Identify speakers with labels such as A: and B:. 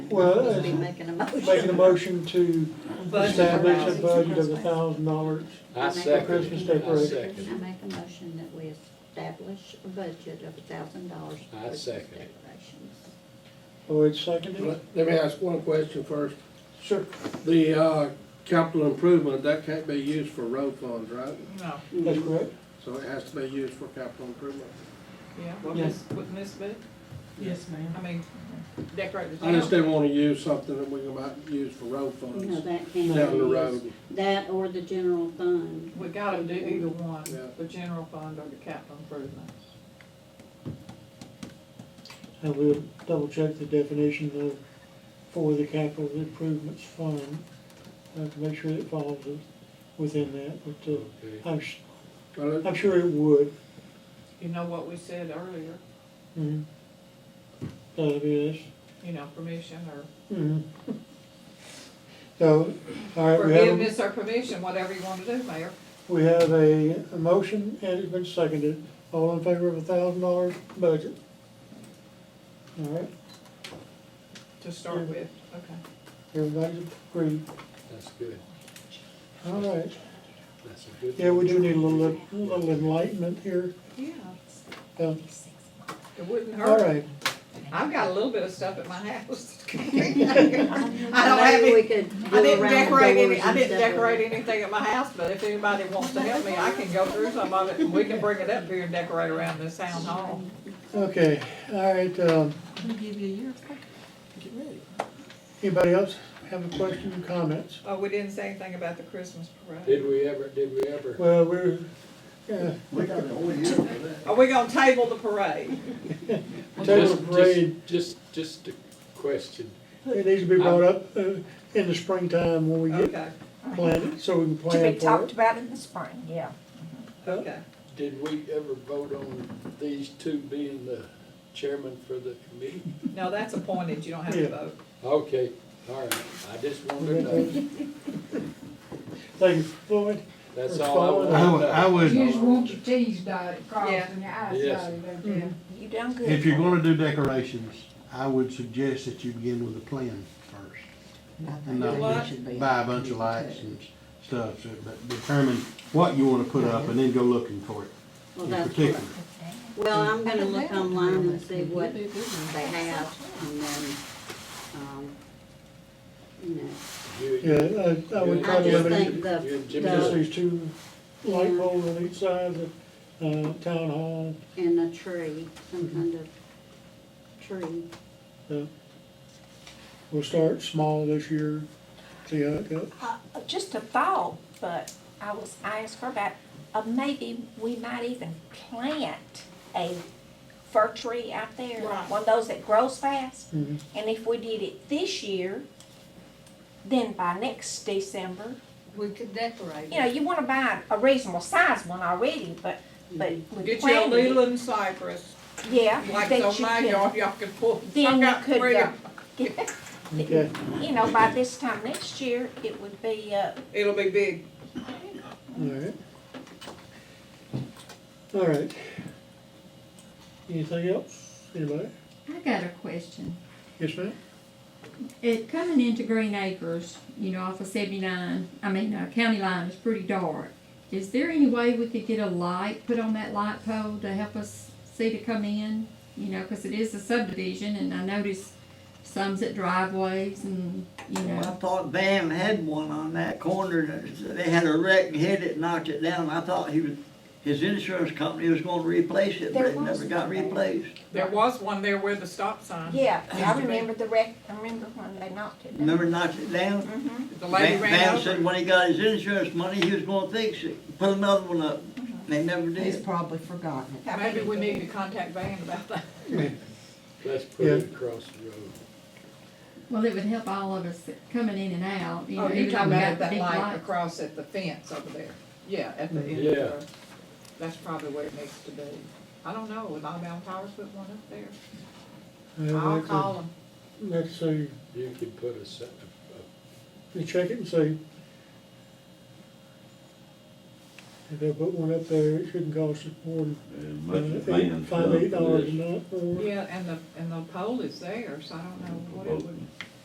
A: Well,
B: Just be
A: it's-
B: making a motion.
A: Making a motion to
C: Budget for
A: establish a
C: houses.
A: budget of a thousand dollars.
D: I
B: For
D: second
A: Christmas
D: it, I
A: decorations.
B: I
D: second
B: make a motion that we establish a budget of a thousand dollars for
D: I
B: Christmas
D: second it.
B: decorations.
A: Oh, it's seconded?
E: Let let me ask one question first.
A: Sure.
E: The uh, capital improvement, that can't be used for road funds, right?
C: No,
A: That's correct.
E: So it has to be used for capital improvement.
C: yeah, what
A: Yeah.
C: Miss, what Miss Boo?
F: Yes, ma'am.
C: I mean, decorate the
E: I just
C: town.
E: didn't want to use something that we might use for road
B: No,
E: funds
B: that can't
E: down the
B: be used.
E: road.
B: That or the general fund.
C: We gotta do either one,
E: Yeah.
C: the general fund or the capital improvements.
A: And we'll double check the definition of, for the capital improvements fund, uh, to make sure it falls within that, but, uh,
D: it.
A: I'm, s-
E: Well, it-
A: I'm sure it would.
C: You know what we said earlier,
A: Mhm. That'd be this.
C: you know, permission or
A: Mhm. So, all right, we have, a-
C: forgiveness or permission, whatever you wanna do, Mayor.
A: we have a a motion and it's been seconded. All in favor of a thousand dollar budget? All right,
C: to start with, okay.
A: everybody's agreed.
D: That's good,
A: All right,
D: that's a good.
A: yeah, we do need a little, little enlightenment here.
C: Yeah.
A: Um,
C: It wouldn't
A: All
C: hurt.
A: right,
C: I've got a little bit of stuff at my house. I have
B: Maybe
C: it.
B: we could do
C: didn't
B: around
C: decorate
B: doors
C: any, I
B: and stuff
C: didn't
B: with it.
C: decorate anything at my house, but if anybody wants to help me, I can go through some of it, and we can bring it up here and decorate around this town hall.
A: okay, all right, um,
F: We'll give you a year, get ready.
A: anybody else have a question or comments?
C: Oh, we didn't say anything about the Christmas parade.
D: Did we ever, did we ever?
A: Well, we're, uh,
G: We got a whole year for that.
C: Are we gonna table the parade?
A: table
D: Just-
A: parade,
D: Just, just just a question,
A: it needs to be brought up, uh, in the springtime when we get
C: Okay,
A: planted, so we can
H: To be
A: plan for
H: talked
A: it.
H: about in the spring, yeah.
C: okay.
D: did we ever vote on these two being the chairman for the committee?
C: No, that's appointed, you don't have
A: Yeah.
C: to vote.
D: Okay, all right, I just wanted to know,
A: Thank you, Floyd.
D: that's all I
G: I would,
D: wanted to
G: I
D: know.
G: would,
I: You just want your T's dotted, crossed, and your I's
D: Yes.
I: dotted,
C: Mm-hmm.
I: okay?
H: You done good.
G: if you're gonna do decorations, I would suggest that you begin with a plan first. And not
C: What?
G: just buy a bunch of lights and stuff, so- but determine what you wanna put up and then go looking for it
B: Well,
G: in
B: that's
G: particular.
B: what- Well, I'm gonna look online and see what they have and then, um, you know,
D: You-
A: Yeah, I, I would try to
B: I just
A: limit
B: think
A: it,
D: you
B: the,
D: and Jimmy
A: just
D: are-
B: the,
A: these two light poles on each side of the, uh, town hall,
B: and a tree, some kind of tree.
A: uh, we'll start small this year, see how it goes.
H: Uh, Just a thought, but I was, I asked her about, uh, maybe we might even plant a fir tree out there.
C: Right.
H: One of those that grows fast.
A: Mhm.
H: And if we did it this year, then by next December,
B: We could decorate
H: you know, you wanna buy a reasonable size one already, but, but
A: Mm-hmm.
H: we
C: Get your
H: planted it.
C: Leland cypress,
H: Yeah,
C: like
H: that
C: on
H: you
C: my
H: can-
C: yard, y'all can pull. I
H: Then you
C: got
H: could,
C: three.
H: uh,
A: Okay,
H: you know, by this time next year, it would be, uh,
C: It'll be big.
A: all right. All right. Anything else, anybody?
J: I got a question.
A: Yes, ma'am?
J: It coming into Green Acres, you know, off of seventy-nine, I mean, uh, county line is pretty dark. Is there any way we could get a light put on that light pole to help us see to come in? You know, cause it is a subdivision and I noticed some's at driveways and, you
K: Well, I
J: know,
K: thought Bam had one on that corner, that they had a wreck and hit it, knocked it down, I thought he was, his insurance company was gonna replace it, but
H: There
K: it never
H: was
K: got
H: one there.
K: replaced.
C: There was one there where the stop sign.
H: yeah,
C: Used
H: I
C: to be.
H: remember the wreck, I remember when they knocked it down.
K: Remember knocked it down?
H: Mhm.
C: The lady
K: Bam-
C: ran
K: Bam said
C: over.
K: when he got his insurance money, he was gonna fix it, put another one up, they never did.
F: probably forgotten
H: I
C: Maybe
H: think
C: we
H: it
C: need to
H: did.
C: contact Van about that.
D: Let's put it across the road.
J: well, it would help all of us coming in and out, you know.
C: Oh,
J: even
C: you're
J: if
C: talking
J: we got
C: about that
J: big
C: light
J: lights.
C: across at the fence over there? Yeah, at the end of
D: Yeah.
C: the road. That's probably where it needs to be. I don't know, would Alabama Powers put one up there? I'll call them.
A: Let's see,
D: You could put a, se-
A: you check it and see. If they put one up there, it shouldn't cost us more than
L: And much
A: uh,
L: of
A: eight,
L: man's
A: five,
L: done
A: eight
L: for
A: dollars a
L: this.
A: night or.
C: Yeah, and the, and the pole is there, so I don't know what it would